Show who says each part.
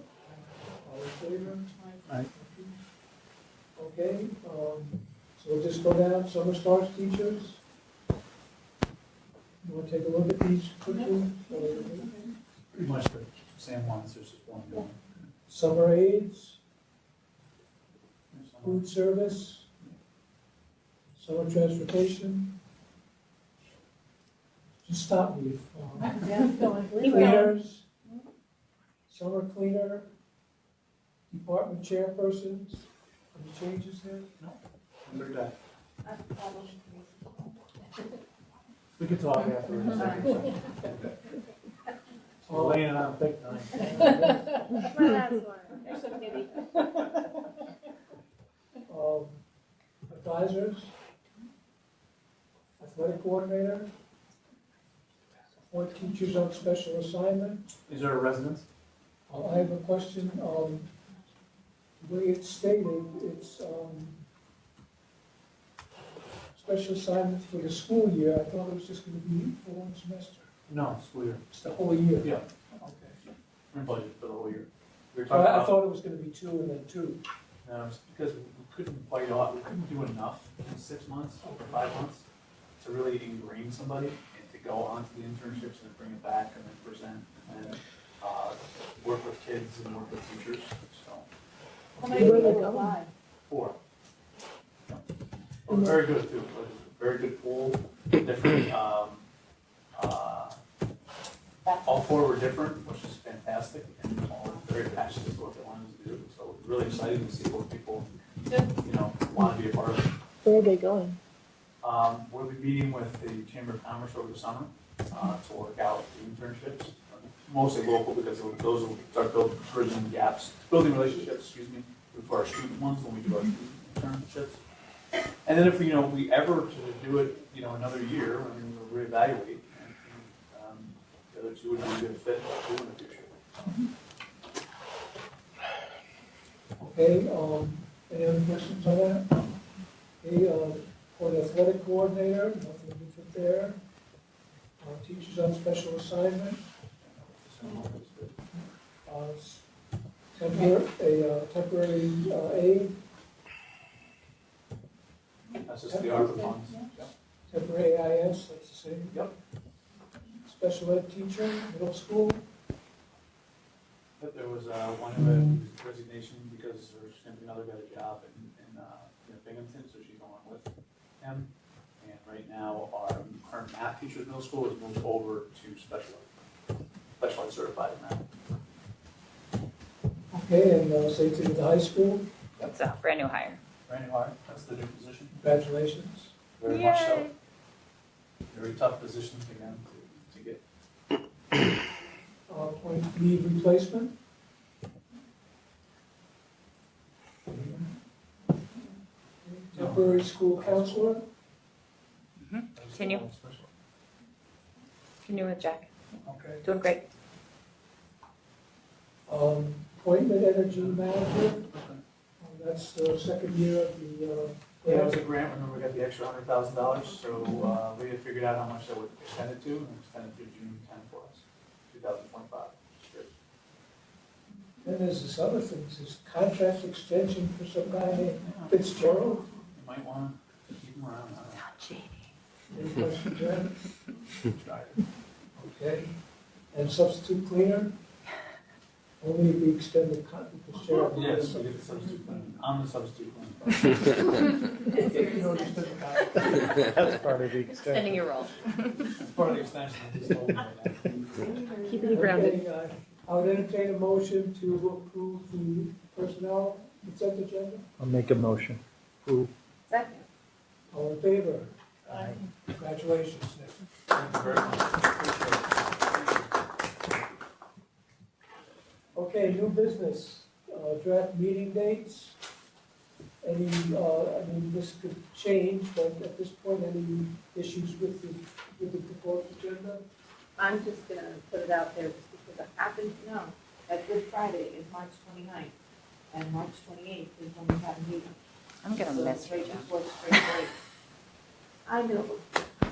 Speaker 1: um, go down, summer starts teachers. You wanna take a look at these quickly?
Speaker 2: Pretty much the same ones, there's just one going.
Speaker 1: Summer aids,
Speaker 2: There's one.
Speaker 1: food service, summer transportation. Just stop me if, um,
Speaker 3: Yeah, going, leave going.
Speaker 1: cleaners, summer cleaner, department chairpersons, any changes there?
Speaker 2: Number nine. We could talk afterwards. Elaine and I will pick nine.
Speaker 4: My last one. There's so many.
Speaker 1: Um, advisors, athletic coordinator, support teachers on special assignment.
Speaker 2: Is there a residence?
Speaker 1: Uh, I have a question, um, the way it's stated, it's, um, special assignment for the school year, I thought it was just gonna be for one semester,
Speaker 2: No, school year.
Speaker 1: it's the whole year.
Speaker 2: Yeah.
Speaker 1: Okay.
Speaker 2: We're budgeted for the whole year. We were
Speaker 1: So Uh, I, I
Speaker 2: talking
Speaker 1: thought it was gonna be two and then two.
Speaker 2: about, um, because we couldn't quite, a lot- we couldn't do enough in six months or five months to really ingrain somebody and to go onto the internships and bring it back and then present and then, uh, work with kids and work with teachers, so.
Speaker 3: How many people apply?
Speaker 2: Four. Oh, Very good, too, very good pool, different, um, uh, all four were different, which is fantastic, and all very passionate about what they wanted to do, so really excited to see what people, you know, want to be a part of.
Speaker 5: Where are they going?
Speaker 2: Um, we'll be meeting with the Chamber of Commerce over the summer, uh, to work out the internships, mostly local, because those will start building, bridging gaps, building relationships, excuse me, for our student ones when we do our student internships. And then if, you know, we ever to do it, you know, another year, I mean, we'll reevaluate, and, um, the other two would be a good fit, too, in the future.
Speaker 1: Okay, um, any other questions on that? Okay, uh, for the athletic coordinator, nothing different there. Uh, teachers on special assignment,
Speaker 2: So, it's good.
Speaker 1: uh, s- temporary, a uh, temporary uh, aid,
Speaker 2: That's just the ARPA funds.
Speaker 1: temporary AIS, that's the same.
Speaker 2: Yep.
Speaker 1: Special ed teacher, middle school,
Speaker 2: But there was, uh, one of the resignation because there's gonna be another got a job in, in, uh, in Binghamton, so she's going with him. And right now, our current math teacher at middle school has moved over to special ed, special ed certified in math.
Speaker 1: okay, and uh, safety to the high school,
Speaker 6: It's a brand new hire.
Speaker 2: Brandon Hart, that's the new position.
Speaker 1: congratulations.
Speaker 2: Very much so. Very tough position to get, to get.
Speaker 1: Uh, point leave replacement. Temporary school counselor,
Speaker 6: Continue. Continue with Jack.
Speaker 1: okay.
Speaker 6: Doing great.
Speaker 1: Um, appointment energy manager, uh, that's the second year of the, uh,
Speaker 2: Yeah, it
Speaker 1: grant.
Speaker 2: was a grant, remember we got the extra hundred thousand dollars, so, uh, we had figured out how much that would extend it to, and extend it to June ten for us, two thousand twenty-five, which is great.
Speaker 1: then there's this other thing, this contract extension for some guy named Fitzgerald.
Speaker 2: You might want to keep them around. I
Speaker 1: Any questions there?
Speaker 2: don't know. Try it.
Speaker 1: Okay, and substitute cleaner? Only if we extend the con, Fitzgerald.
Speaker 2: Yes, we get the substitute plan. I'm the substitute plan.
Speaker 1: If you don't extend the contract.
Speaker 7: That's part of the
Speaker 6: Extending your role.
Speaker 2: It's part of the extension. I just told you that.
Speaker 5: Keeping
Speaker 1: Okay, uh, I would entertain a motion to approve the personnel consent agenda.
Speaker 7: I'll make a motion. Who?
Speaker 3: Second.
Speaker 1: All in favor? Congratulations, Nick.
Speaker 2: Thank you very much. Appreciate it.
Speaker 1: Okay, new business, uh, draft meeting dates. Any, uh, I mean, this could change, but at this point, any issues with the, with the proposed agenda?
Speaker 3: I'm just gonna put it out there just because I happen to know that Good Friday is March 29th and March twenty-eighth is when we have a meeting.
Speaker 6: I'm gonna
Speaker 3: So
Speaker 6: miss
Speaker 3: it's right
Speaker 6: you, Jack.
Speaker 3: before spring break. I know,